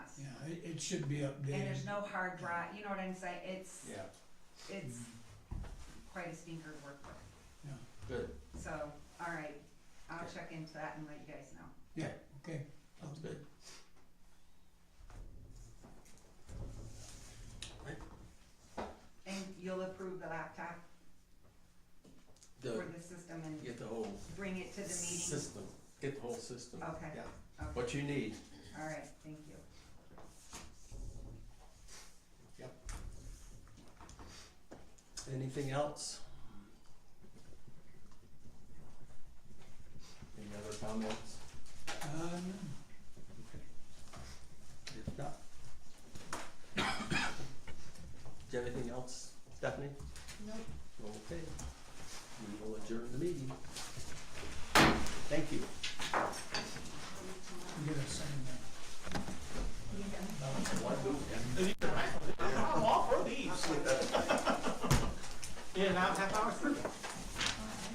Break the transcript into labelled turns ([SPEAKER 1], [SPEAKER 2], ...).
[SPEAKER 1] It, it should be
[SPEAKER 2] and there's
[SPEAKER 1] updated.
[SPEAKER 2] no hard drive, you know what I'm saying, it's,
[SPEAKER 3] Yeah, Mm-hmm.
[SPEAKER 2] it's quite a stinker to work with,
[SPEAKER 3] good,
[SPEAKER 2] so, alright, I'll
[SPEAKER 3] Okay.
[SPEAKER 2] check into that and let you guys know.
[SPEAKER 1] Okay,
[SPEAKER 3] sounds good.
[SPEAKER 2] And you'll approve the laptop
[SPEAKER 3] The,
[SPEAKER 2] for the system and
[SPEAKER 3] get the whole
[SPEAKER 2] bring it to the meeting?
[SPEAKER 3] system, get the whole system,
[SPEAKER 2] Okay,
[SPEAKER 3] yeah,
[SPEAKER 2] okay,
[SPEAKER 3] what you need.
[SPEAKER 2] alright, thank you.
[SPEAKER 3] Anything else? Any other comments?
[SPEAKER 1] um,
[SPEAKER 3] If not. Do you have anything else, Stephanie? No. Okay, we will adjourn the meeting. Thank you.
[SPEAKER 1] you get a sign that.
[SPEAKER 4] I'm all for these. Yeah, now half hour's through.